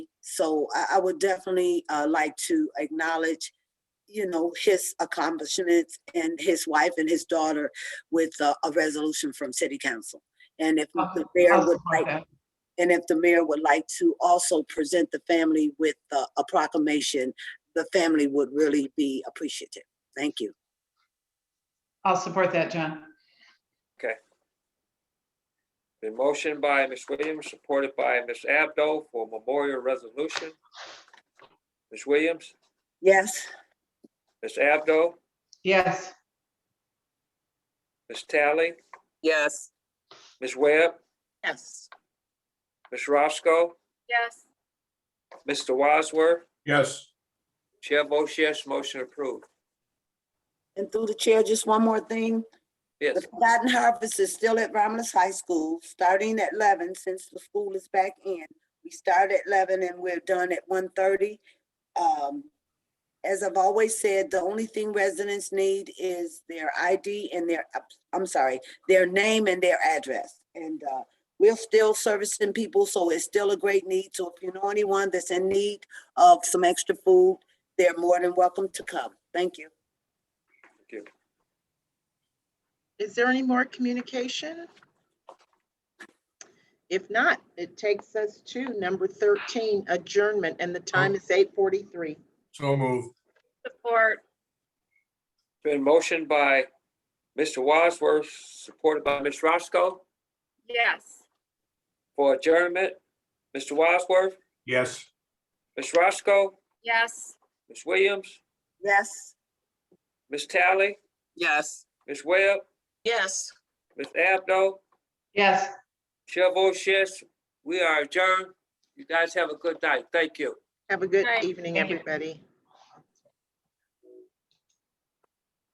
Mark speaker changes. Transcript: Speaker 1: So I, I would definitely uh, like to acknowledge, you know, his accomplishments and his wife and his daughter with uh, a resolution from city council. And if the mayor would like,
Speaker 2: Okay.
Speaker 1: and if the mayor would like to also present the family with uh, a proclamation, the family would really be appreciative. Thank you.
Speaker 2: I'll support that, John.
Speaker 3: The motion by Ms. Williams, supported by Ms. Abdo for memorial resolution. Ms. Williams,
Speaker 1: Yes,
Speaker 3: Ms. Abdo,
Speaker 2: Yes,
Speaker 3: Ms. Tally,
Speaker 4: Yes.
Speaker 3: Ms. Webb,
Speaker 4: Yes.
Speaker 3: Ms. Roscoe,
Speaker 5: Yes.
Speaker 3: Mr. Wadsworth.
Speaker 6: yes,
Speaker 3: Chair votes yes, motion approved.
Speaker 1: and through the chair, just one more thing.
Speaker 3: Yes,
Speaker 1: The Forgotten Harvest is still at Romulus High School, starting at eleven, since the school is back in. We start at eleven and we're done at 1:30. Um, as I've always said, the only thing residents need is their ID and their, I'm sorry, their name and their address. And, uh, we're still servicing people, so it's still a great need. So if you know anyone that's in need of some extra food, they're more than welcome to come. Thank you.
Speaker 4: Is there any more communication? If not, it takes us to number 13, adjournment, and the time is 8:43.
Speaker 6: so move.
Speaker 5: Support.
Speaker 3: been motioned by Mr. Wadsworth, supported by Ms. Roscoe
Speaker 5: Yes.
Speaker 3: for adjournment. Mr. Wadsworth,
Speaker 6: Yes,
Speaker 3: Ms. Roscoe,
Speaker 5: Yes.
Speaker 3: Ms. Williams,
Speaker 1: Yes.
Speaker 3: Ms. Tally,
Speaker 4: Yes.
Speaker 3: Ms. Webb,
Speaker 4: Yes.
Speaker 3: Ms. Abdo,
Speaker 2: yes.
Speaker 3: Chair votes yes, we are adjourned. You guys have a good night. Thank you.
Speaker 4: Have a good
Speaker 5: All right,
Speaker 4: evening,
Speaker 2: thank you.
Speaker 4: everybody.